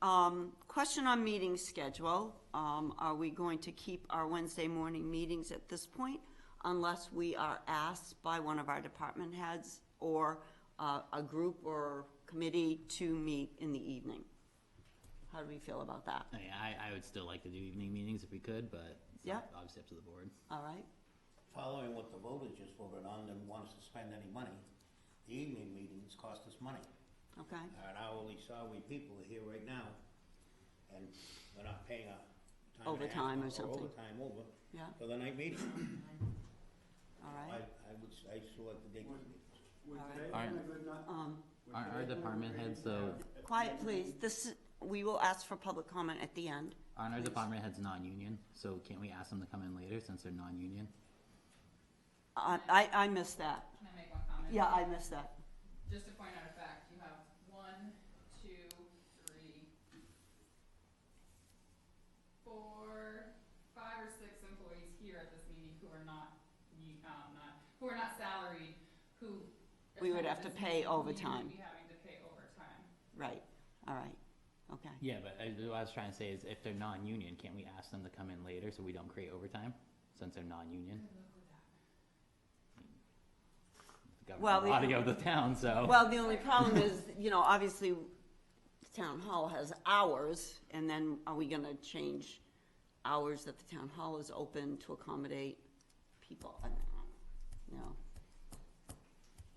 Um, question on meeting schedule. Um, are we going to keep our Wednesday morning meetings at this point? Unless we are asked by one of our department heads or, uh, a group or committee to meet in the evening? How do we feel about that? I mean, I, I would still like to do evening meetings if we could, but it's Yeah. ob- obviously up to the board. All right? Following what the voters just voted on and want us to spend any money, the evening meetings cost us money. Okay? Our hourly salary people are here right now, and we're not paying a time and a half Overtime or something. Overtime over Yeah. for the night meeting. All I, right? I would, s- I still like the daytime meetings. Would Alright. today Alright. been a good night? Um, would Our, our today been a department great heads, though, night? quiet, please. This, is- we will ask for public comment at the end. aren't our department heads non-union, so can't we ask them to come in later since they're non-union? I, Uh, I, I missed that. Can I make one comment? Yeah, I missed that. Just to point out a fact, you have one, two, three, four, five or six employees here at this meeting who are not, u- um, not, who are not salaried, who. We would attended have to this pay meeting, you would overtime. Be having to pay overtime. Right. All right. Okay. Yeah, but I, what I was trying to say is if they're non-union, can't we ask them to come in later so we don't create overtime, since they're non-union? The government Well, we- body of the town, so. Well, the only problem is, you know, obviously, the town hall has hours, and then are we gonna change hours that the town hall is open to accommodate people? I don't know. No.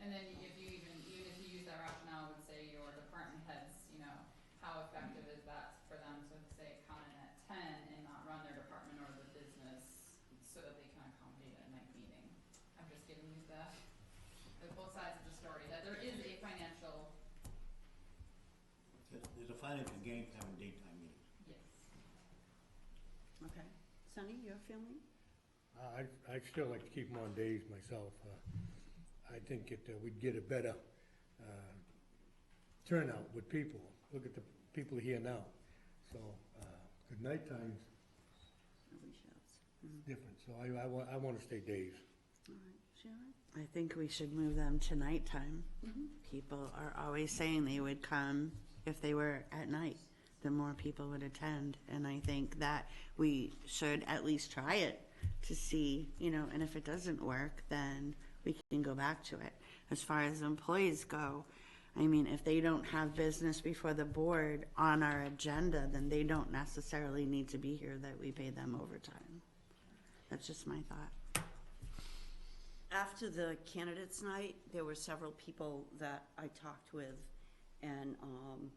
And then if you even, even if you use that rationale, I would say your department heads, you know, how effective is that for them to say come in at ten and not run their department or the business so that they can accommodate a night meeting? I'm just giving you the, the both sides of the story, that there is a financial, There- There's a financial gain for having daytime meetings. yes. Okay. Sunny, your feeling? Uh, I'd, I'd still like to keep them on days myself. Uh, I think it, uh, we'd get a better uh, turnout with people. Look at the people here now. So, uh, at nighttime, Nobody shouts. it's different, so I, I want, I want to stay days. All right. Sharon? I think we should move them to nighttime. People are always saying they would come if they were at night, the more people would attend. And I think that we should at least try it to see, you know, and if it doesn't work, then we can go back to it. As far as employees go, I mean, if they don't have business before the board on our agenda, then they don't necessarily need to be here that we pay them overtime. That's just my thought. After the candidates' night, there were several people that I talked with and, um,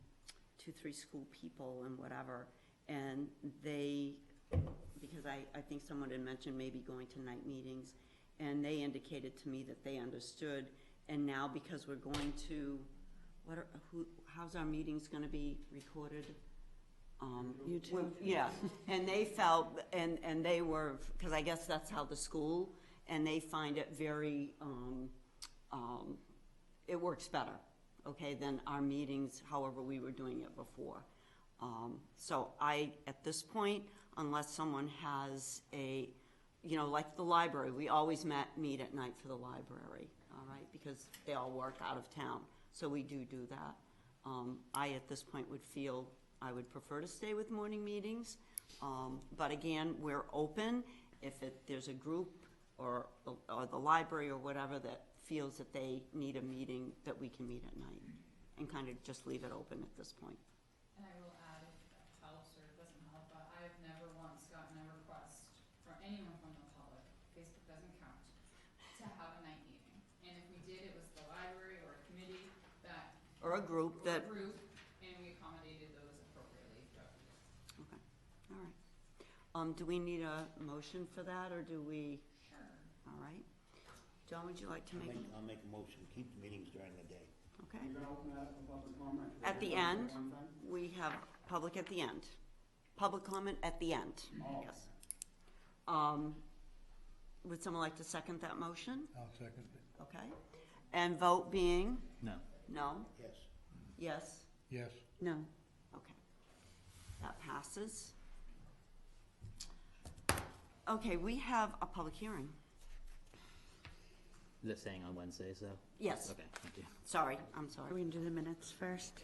two, three school people and whatever. And they, because I, I think someone had mentioned maybe going to night meetings, and they indicated to me that they understood. And now because we're going to, what are, who, how's our meetings gonna be recorded? Um, well, Yeah, and they felt, and, and they were, because I guess that's how the school, and they find it very, um, um, it works better, okay, than our meetings, however we were doing it before. Um, so I, at this point, unless someone has a, you know, like the library, we always met, meet at night for the library, all right, because they all work out of town, so we do do that. Um, I, at this point, would feel I would prefer to stay with morning meetings, um, but again, we're open. If it, there's a group or, or the library or whatever that feels that they need a meeting, that we can meet at night, and kind of just leave it open at this point. And I will add, if that helps or doesn't help, but I have never once gotten a request from anyone from the public, Facebook doesn't count, to have a night meeting. And if we did, it was the library or a committee that, Or a group or a that, group, and we accommodated those appropriately throughout the year. okay, all right. Um, do we need a motion for that, or do we, Sure. all right? John, would you like to I'll make, make, I'll make a motion, keep the meetings during the day. okay? You're gonna open that up for public comment? At the You're gonna end? say one thing? We have public at the end. Public comment at the end, Oh. yes. Um, would someone like to second that motion? I'll second it. Okay. And vote being, No. no, Yes, yes, Yes, No, okay. That passes. Okay, we have a public hearing. Is it saying on Wednesday, so? Yes, Okay, thank you. sorry, I'm sorry. Are we gonna do the minutes first?